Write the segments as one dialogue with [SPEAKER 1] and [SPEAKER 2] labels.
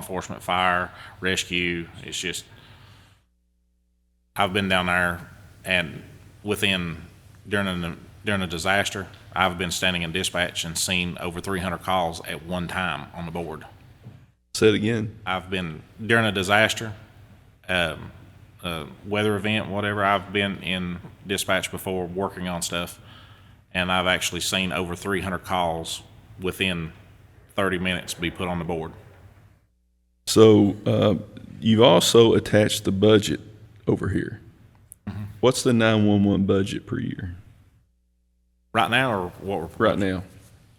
[SPEAKER 1] enforcement, fire, rescue. It's just, I've been down there and within, during a, during a disaster, I've been standing in dispatch and seen over three hundred calls at one time on the board.
[SPEAKER 2] Say it again.
[SPEAKER 1] I've been during a disaster, um, uh, weather event, whatever. I've been in dispatch before, working on stuff, and I've actually seen over 300 calls within 30 minutes be put on the board.
[SPEAKER 2] So uh, you've also attached the budget over here. What's the 911 budget per year
[SPEAKER 1] Right now, or what? We're,
[SPEAKER 2] right now?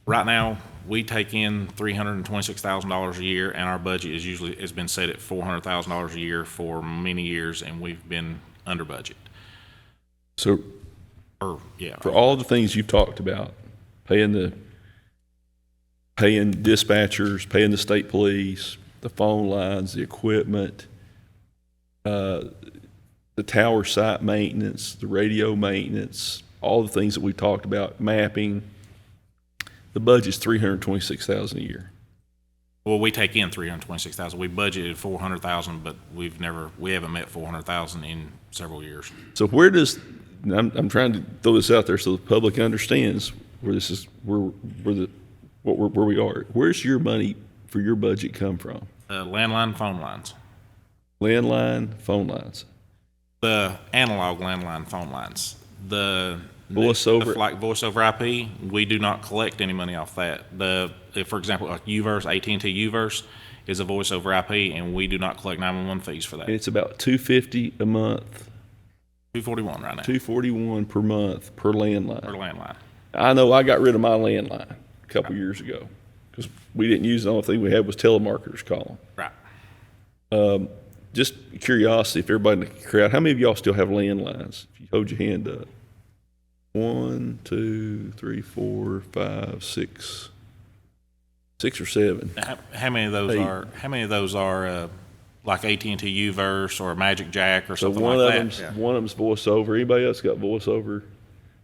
[SPEAKER 1] right now, we take in 326 thousand dollars a year, and our budget is usually has been set at 400 thousand dollars a year for many years, and we've been under budget.
[SPEAKER 2] So
[SPEAKER 1] Or yeah,
[SPEAKER 2] for all the things you've talked about, paying the paying dispatchers, paying the state police, the phone lines, the equipment, uh, the tower site maintenance, the radio maintenance, all the things that we talked about, mapping. The budget's three hundred twenty-six thousand a year.
[SPEAKER 1] Well, we take in three hundred twenty-six thousand. We budgeted four hundred thousand, but we've never, we haven't met four hundred thousand in several years.
[SPEAKER 2] So where does, and I'm, I'm trying to throw this out there so the public understands where this is, where, where the, what, we're- where we are. Where's your money for your budget come from?
[SPEAKER 1] Uh, landline phone lines,
[SPEAKER 2] Landline, phone lines.
[SPEAKER 1] the analog landline phone lines, the.
[SPEAKER 2] Voice over-
[SPEAKER 1] Like voice over IP, we do not collect any money off that. The, if, for example, like UVerse, AT&T UVerse is a voice over IP and we do not collect nine-one-one fees for
[SPEAKER 2] And
[SPEAKER 1] that.
[SPEAKER 2] it's about two fifty a month,
[SPEAKER 1] Two forty-one right now
[SPEAKER 2] two forty-one per month per
[SPEAKER 1] for
[SPEAKER 2] landline.
[SPEAKER 1] landline.
[SPEAKER 2] I know I got rid of my landline a couple years ago because we didn't use, it. the only thing we had was telemarketers calling.
[SPEAKER 1] Right.
[SPEAKER 2] Just curiosity, if everybody in the crowd, how many of y'all still have landlines? If you hold your hand up. One, two, three, four, five, six, six or seven.
[SPEAKER 1] How, how many of those
[SPEAKER 2] Hey.
[SPEAKER 1] are, how many of those are, uh, like AT&T UVerse or Magic Jack or
[SPEAKER 2] So
[SPEAKER 1] something
[SPEAKER 2] one of
[SPEAKER 1] like that?
[SPEAKER 2] them's, one of them's voiceover. Anybody else got voiceover?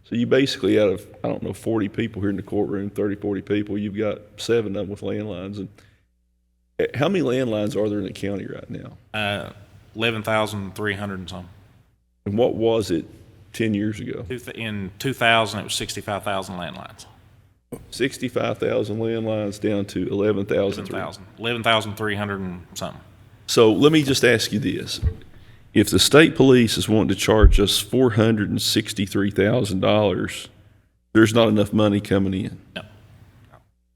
[SPEAKER 2] So you basically out of, I don't know, 40 people here in the courtroom, 30, 40 people, you've got seven of them with landlines. And eh, how many landlines are there in the county right now?
[SPEAKER 1] Uh, eleven thousand three hundred and some.
[SPEAKER 2] And what was it 10 years ago?
[SPEAKER 1] Two th- In two thousand, it was sixty-five thousand landlines.
[SPEAKER 2] 65,000 landlines down to 11,000.
[SPEAKER 1] Eleven thousand. Eleven thousand three hundred and something.
[SPEAKER 2] So let me just ask you this. If the state police is wanting to charge us $463,000, there's not enough money coming in
[SPEAKER 1] No,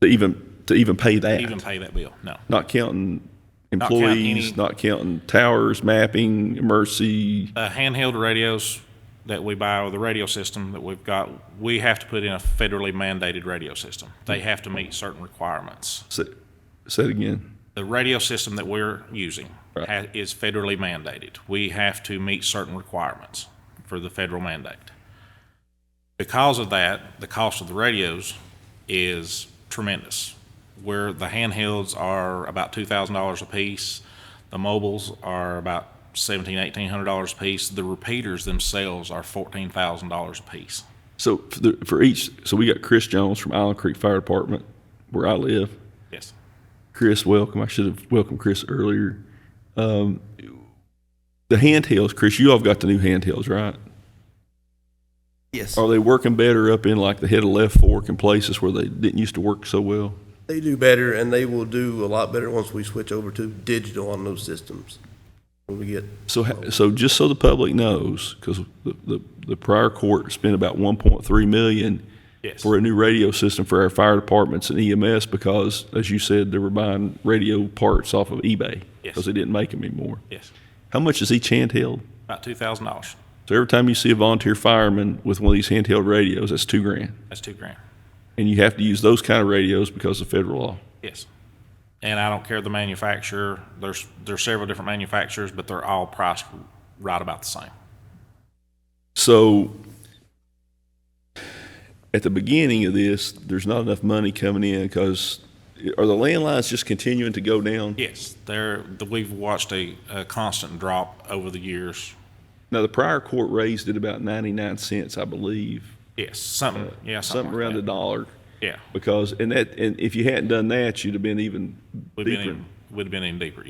[SPEAKER 2] to even, to even pay that.
[SPEAKER 1] even pay that bill. No.
[SPEAKER 2] Not counting
[SPEAKER 1] counting
[SPEAKER 2] employees,
[SPEAKER 1] any-
[SPEAKER 2] not counting towers, mapping, emergency.
[SPEAKER 1] Uh, handheld radios that we buy, or the radio system that we've got, we have to put in a federally mandated radio system. They have to meet certain requirements.
[SPEAKER 2] Say say it again.
[SPEAKER 1] The radio system that we're using
[SPEAKER 2] Right.
[SPEAKER 1] ha- is federally mandated. We have to meet certain requirements for the federal mandate. Because of that, the cost of the radios is tremendous. Where the handhelds are about two thousand dollars a piece, the mobiles are about seventeen, eighteen hundred dollars a piece. The repeaters themselves are fourteen thousand dollars a piece.
[SPEAKER 2] So for the- for each, so we got Chris Jones from Island Creek Fire Department, where I live.
[SPEAKER 1] Yes.
[SPEAKER 2] Chris, welcome. I should have welcomed Chris earlier. Um, the handhelds, Chris, you all have got the new handhelds, right?
[SPEAKER 3] Yes,
[SPEAKER 2] Are they working better up in like the head of left fork and places where they didn't used to work so well?
[SPEAKER 3] they do better, and they will do a lot better once we switch over to digital on those systems. When we get,
[SPEAKER 2] So, ha- so just so the public knows, because the, the, the prior court spent about 1.3 million
[SPEAKER 1] Yes.
[SPEAKER 2] for a new radio system for our fire departments and EMS because, as you said, they were buying radio parts off of eBay
[SPEAKER 1] Yes.
[SPEAKER 2] because they didn't make them anymore.
[SPEAKER 1] Yes.
[SPEAKER 2] How much is each handheld?
[SPEAKER 1] About two thousand dollars.
[SPEAKER 2] So every time you see a volunteer fireman with one of these handheld radios, that's two grand.
[SPEAKER 1] That's two grand.
[SPEAKER 2] And you have to use those kind of radios because of federal law.
[SPEAKER 1] Yes. And I don't care the manufacturer. There's, there's several different manufacturers, but they're all priced right about the same.
[SPEAKER 2] So at the beginning of this, there's not enough money coming in because are the landlines just continuing to go down?
[SPEAKER 1] Yes, there, we've watched a, a constant drop over the years.
[SPEAKER 2] Now, the prior court raised it about 99 cents, I believe,
[SPEAKER 1] Yes, something, yeah, something
[SPEAKER 2] something
[SPEAKER 1] like
[SPEAKER 2] around a
[SPEAKER 1] that.
[SPEAKER 2] dollar.
[SPEAKER 1] Yeah,
[SPEAKER 2] Because, and that, and if you hadn't done that, you'd have been even
[SPEAKER 1] We've been
[SPEAKER 2] deeper.
[SPEAKER 1] in- we'd have been in deeper,